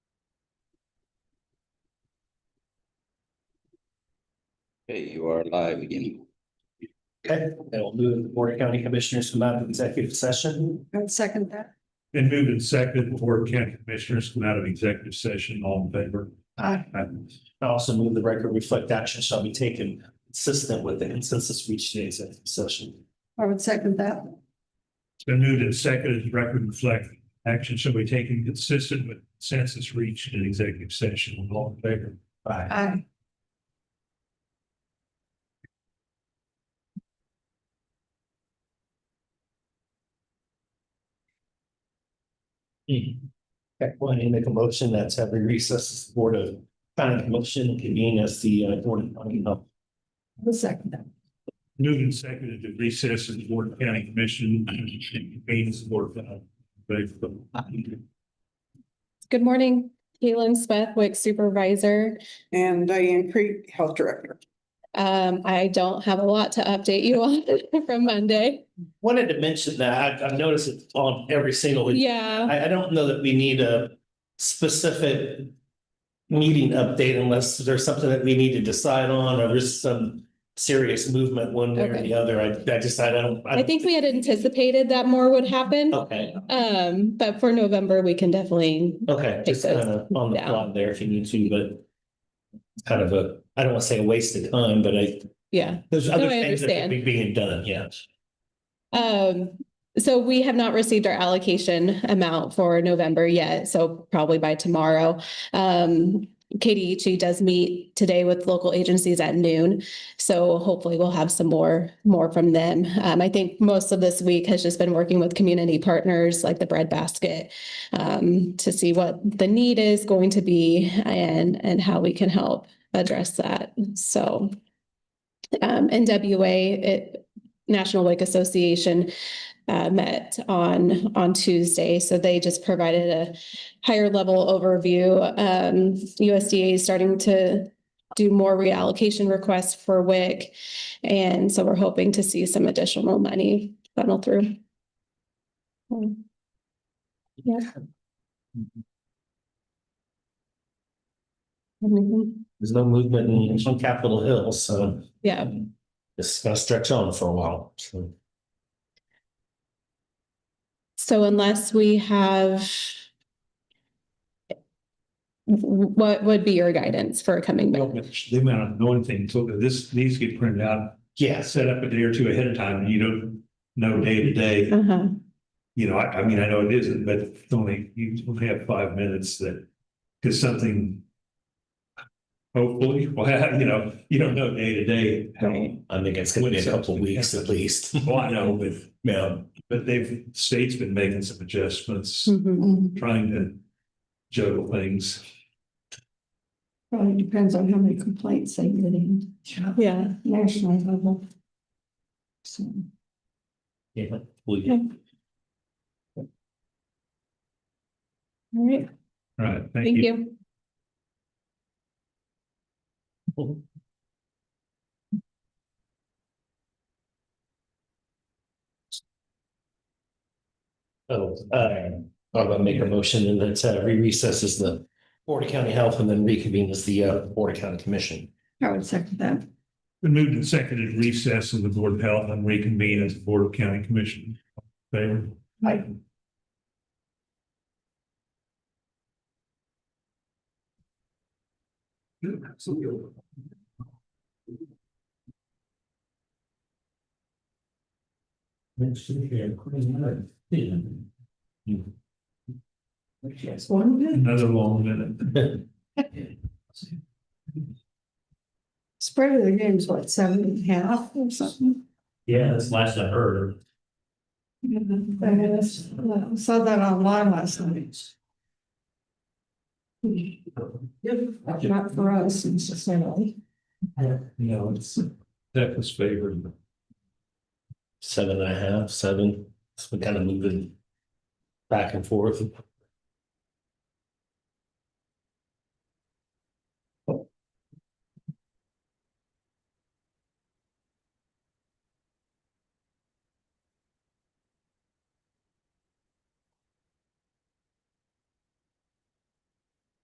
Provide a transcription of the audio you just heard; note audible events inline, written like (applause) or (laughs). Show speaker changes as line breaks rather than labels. Okay, you are live again.
Okay, that'll move the Board of County Commissioners from out of executive session.
I'll second that.
Been moved and seconded, the Board of County Commissioners come out of executive session, all in favor?
Aye.
I also move the record reflect action shall be taken consistent with the consensus reached in executive session.
I would second that.
It's been moved and seconded, the record reflect, action shall be taken consistent with census reached in executive session, all in favor?
Aye.
Aye.
Hmm. Okay, well, I make a motion that's every recess is the Board of County Commission convene as the uh, Board of County Health.
I would second that.
Moved and seconded to recess in the Board of County Commission, convenes the Board of County. Commissioners.
Good morning, Caitlin Smith, WIC supervisor.
And Diane Creek, Health Director.
Um, I don't have a lot to update you on (laughs) from Monday.
Wanted to mention that, I- I've noticed it on every single.
Yeah,
I, I don't know that we need a specific meeting update unless there's something that we need to decide on or there's some serious movement one way or
Okay.
the other. I, I just, I Oh. don't.
I think we had anticipated that more would happen.
Okay,
Um, but for November, we can definitely,
okay, just
Take
kind
those
of on the
down.
plot there if you need to, but it's kind of a, I don't want to say a waste of time, but I,
yeah.
there's other
I
things that could
understand.
be being done, yeah.
Um, so we have not received our allocation amount for November yet, so probably by tomorrow. Um, KDHE does meet today with local agencies at noon, so hopefully we'll have some more, more from them. Um, I think most of this week has just been working with community partners like the Bread Basket um, to see what the need is going to be and, and how we can help address that, so. Um, NWA, it, National Lake Association uh, met on, on Tuesday. So they just provided a higher level overview. Um, USDA is starting to do more reallocation requests for WIC. And so we're hoping to see some additional money funnel through. Um, Yeah. Mhm.
There's no movement in- on Capitol Hill, so
Yeah,
it's gonna stretch on for a while. so.
So unless we have. What would be your guidance for coming back?
They might not know anything, so this, these get printed out,
Yes,
set up a day or two ahead of time, and you don't know day to day.
Uh-huh,
you know, I, I mean, I know it isn't, but it's only, you only have five minutes that, because something. Hopefully, (laughs) well, you know, you don't know day to day how,
I think it's gonna be a couple of weeks at least.
well, I know with,
Yeah.
but they've, state's been making some adjustments,
mhm.
Mm-hmm.
trying to juggle things.
Probably depends on how many complaints they get in.
Yeah,
National level. So,
Yeah, we-
Yeah. all right,
All Right,
thank you.
Oh, uh, I'm gonna make a motion and that's uh, re recess as the Board of County Health and then reconvene as the uh, Board of County Commission.
I would second that.
Been moved and seconded recess of the Board of Health and reconvene as the Board of County Commission. Favor?
Aye.
Yeah, absolutely.
It's one minute.
Another long minute.
Spread of the game's what, seven and a half or something?
(laughs) Yeah, that's last I heard.
I saw that online last night. Not for us necessarily.
No, it's. That was favored.
Seven and a half, seven, so we kind of moving back and forth.